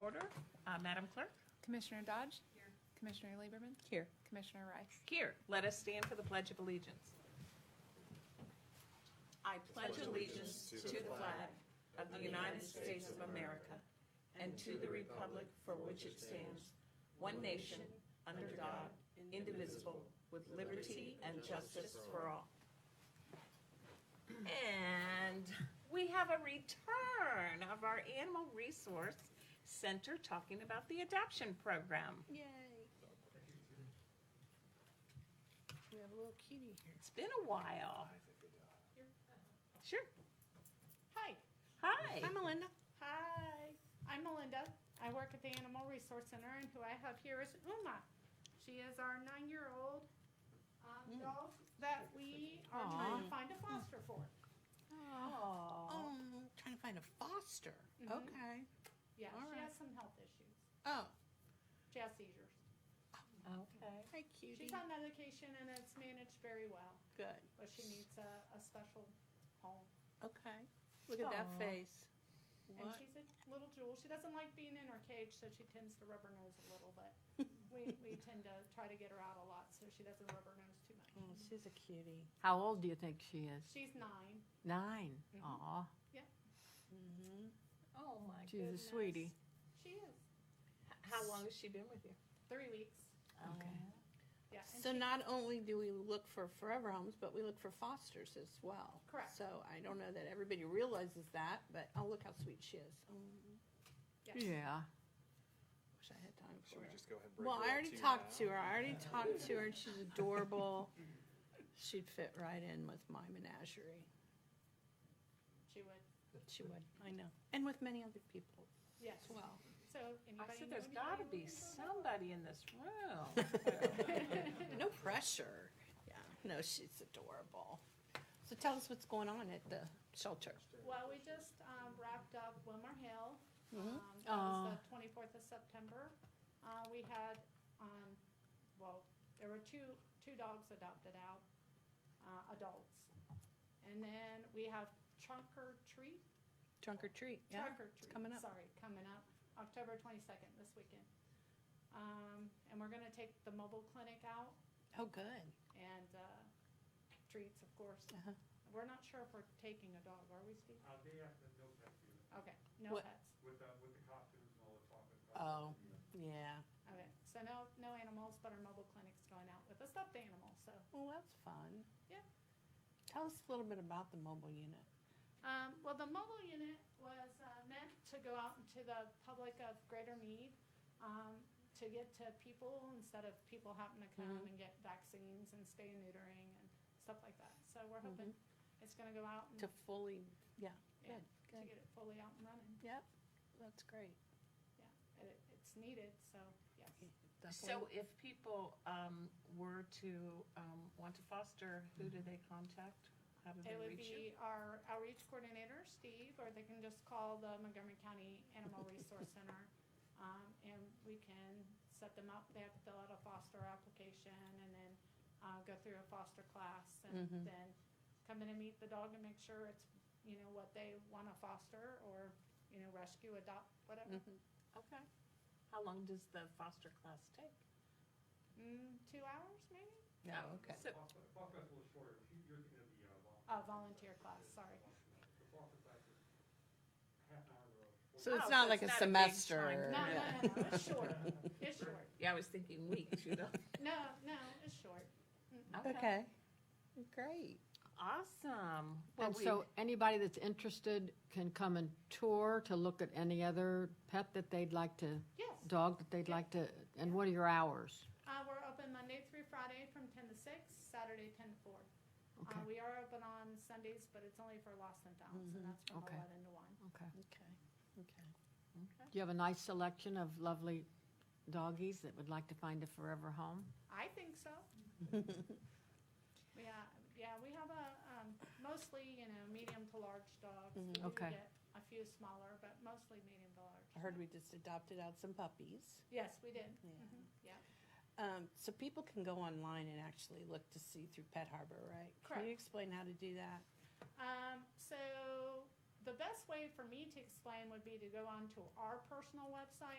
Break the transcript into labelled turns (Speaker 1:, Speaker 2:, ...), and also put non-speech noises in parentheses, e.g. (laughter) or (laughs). Speaker 1: order. Uh, Madam Clerk?
Speaker 2: Commissioner Dodge? Here. Commissioner Lieberman?
Speaker 1: Here.
Speaker 2: Commissioner Rice?
Speaker 1: Here, let us stand for the Pledge of Allegiance. I pledge allegiance to the flag of the United States of America and to the republic for which it stands, one nation, under God, indivisible, with liberty and justice for all. And we have a return of our Animal Resource Center talking about the adoption program.
Speaker 3: Yay. We have a little kitty here.
Speaker 1: It's been a while. Sure. Hi. Hi.
Speaker 3: Hi, Melinda.
Speaker 4: Hi, I'm Melinda. I work at the Animal Resource Center, and who I have here is Uma. She is our nine-year-old um,
Speaker 3: Mm.
Speaker 4: dog that we are trying to find a foster for.
Speaker 3: Oh, trying to find a foster.
Speaker 4: Mhm.
Speaker 3: Okay.
Speaker 4: Yeah,
Speaker 3: All
Speaker 4: she
Speaker 3: right.
Speaker 4: has some health issues.
Speaker 3: Oh,
Speaker 4: She has seizures.
Speaker 1: Okay.
Speaker 3: hi, cutie.
Speaker 4: She's on medication, and it's managed very well,
Speaker 3: Good.
Speaker 4: but she needs a, a special home.
Speaker 3: Okay. Look at that
Speaker 1: Aw.
Speaker 3: face.
Speaker 4: And
Speaker 3: What?
Speaker 4: she's a little jewel. She doesn't like being in her cage, so she tends to rub her nose a little,
Speaker 3: (laughs)
Speaker 4: but we, we tend to try to get her out a lot, so she doesn't rub her nose too much.
Speaker 3: Oh, she's a cutie.
Speaker 5: How old do you think she is?
Speaker 4: She's nine.
Speaker 5: 9
Speaker 4: Mhm.
Speaker 5: Aw,
Speaker 3: Mm-hmm.
Speaker 1: Oh my
Speaker 5: she's a sweetie.
Speaker 4: She is.
Speaker 1: How long has she been with you?
Speaker 4: Three weeks.
Speaker 5: Okay.
Speaker 4: Yeah. and
Speaker 3: So not only do we look for forever homes, but we look for fosters as well.
Speaker 4: Correct.
Speaker 3: So I don't know that everybody realizes that, but oh, look how sweet she is. Oh,
Speaker 4: yes.
Speaker 5: Yeah.
Speaker 3: wish I had time for
Speaker 6: Should we
Speaker 3: her.
Speaker 6: just go ahead and break
Speaker 3: Well,
Speaker 6: her
Speaker 3: I
Speaker 6: up uh,
Speaker 3: already
Speaker 6: two
Speaker 3: talked
Speaker 6: now?
Speaker 3: to her. I already talked to her, and she's adorable. She'd fit right in with my menagerie.
Speaker 4: She would.
Speaker 3: She would. I know. And with many other people
Speaker 4: Yes.
Speaker 3: as well. (laughs)
Speaker 4: So anybody.
Speaker 1: I said,
Speaker 4: know
Speaker 1: there's
Speaker 4: anybody
Speaker 1: got to be
Speaker 4: looking for a dog?
Speaker 1: somebody in this (laughs) room.
Speaker 3: No pressure. Yeah. No, she's adorable. So tell us what's going on at the shelter.
Speaker 4: (laughs) Well, we just um, wrapped up Wilmer Hill.
Speaker 1: Mm-hmm.
Speaker 3: Mhm.
Speaker 4: Um, that was the 24th of September. Uh, we had, um, well, there were two two dogs adopted out, uh, adults, and then we have Trunk or Treat.
Speaker 3: Trunk or treat. Yeah.
Speaker 4: Trunk or treat.
Speaker 3: coming up.
Speaker 4: Sorry, coming up, October twenty-second, this weekend. Um, and we're gonna take the mobile clinic out
Speaker 3: Oh, good.
Speaker 4: and, uh, treats, of course.
Speaker 3: Uh-huh.
Speaker 4: We're not sure if we're taking a dog, are we, Steve?
Speaker 7: Uh, they have the no pet unit
Speaker 4: Okay, no
Speaker 3: What-
Speaker 4: pets.
Speaker 7: with the, with the costumes and all the talk and
Speaker 3: Oh, yeah.
Speaker 4: Okay, so no, no animals, but our mobile clinic's going out with a stuffed animal, so.
Speaker 3: Well, that's fun.
Speaker 4: Yeah.
Speaker 3: Tell us a little bit about the mobile unit.
Speaker 4: Um, well, the mobile unit was uh, meant to go out into the public of Greater Mead um, to get to people instead of people having to come
Speaker 3: Mm-hmm.
Speaker 4: and get vaccines and spay and neutering and stuff like that. So we're hoping it's going to go out and
Speaker 3: Mm-hmm. To fully,
Speaker 4: yeah,
Speaker 3: good,
Speaker 4: to
Speaker 3: good.
Speaker 4: get it fully out and running.
Speaker 3: yep. That's great.
Speaker 4: It, it's needed, so yes.
Speaker 1: So if people um, were to um, want to foster, who do they contact? How do
Speaker 4: It
Speaker 1: they
Speaker 4: would
Speaker 1: reach you?
Speaker 4: be our outreach coordinator, Steve, or they can just call the Montgomery County Animal
Speaker 1: (laughs)
Speaker 4: Resource Center. Um, and we can set them up. They have to fill out a foster application and then, uh, go through a foster class and
Speaker 1: Mm-hmm.
Speaker 3: Mhm.
Speaker 4: then come in and meet the dog and make sure it's, you know, what they wanna foster or, you know, rescue, adopt, whatever.
Speaker 3: Mhm.
Speaker 1: Okay. How long does the foster class take?
Speaker 4: Mm, two hours maybe?
Speaker 3: Yeah,
Speaker 1: Oh,
Speaker 3: okay.
Speaker 1: So-
Speaker 7: Fox Fox Fest was shorter, If you- you're thinking of the, uh,
Speaker 4: Uh, volunteer
Speaker 7: volunteer.
Speaker 4: class, sorry.
Speaker 7: The Fox Fest is half an hour or
Speaker 3: So
Speaker 1: Oh,
Speaker 3: it's
Speaker 1: so
Speaker 3: not like
Speaker 1: it's
Speaker 3: a
Speaker 1: not a big
Speaker 3: semester.
Speaker 1: time.
Speaker 4: No, no, no, no, it's short.
Speaker 1: (laughs)
Speaker 4: It's short.
Speaker 1: Yeah, I was thinking weeks, you know.
Speaker 4: No, no, it's short.
Speaker 1: Uh,
Speaker 3: Okay. (laughs) Great.
Speaker 1: (laughs) Awesome. Well,
Speaker 5: And
Speaker 1: we-
Speaker 5: so anybody that's interested can come and tour to look at any other pet that they'd like to,
Speaker 4: Yes.
Speaker 5: dog that they'd
Speaker 4: Yeah.
Speaker 5: like to, and what are your hours?
Speaker 4: Uh, we're open Monday through Friday from ten to six, Saturday ten to four. Uh,
Speaker 5: Okay.
Speaker 4: we are open on Sundays, but it's only for lost and found, and that's from
Speaker 5: Mm-hmm. Okay.
Speaker 4: eleven to one.
Speaker 5: Okay.
Speaker 3: Okay. Okay.
Speaker 5: Do you have a nice selection of lovely doggies that would like to find a forever home?
Speaker 4: I think so. Yeah, yeah, we have a, um, mostly, you know, medium to large dogs. We
Speaker 3: Mhm.
Speaker 4: do
Speaker 5: Mm-hmm. Okay.
Speaker 4: get A few smaller, but mostly medium to large.
Speaker 3: I heard we just adopted out some puppies.
Speaker 4: Yes, we did.
Speaker 3: Yeah.
Speaker 4: Mhm. Yeah.
Speaker 3: Um, so people can go online and actually look to see through Pet Harbor, right? Can
Speaker 4: Correct.
Speaker 3: you explain how to do that?
Speaker 4: Um, so the best way for me to explain would be to go onto our personal website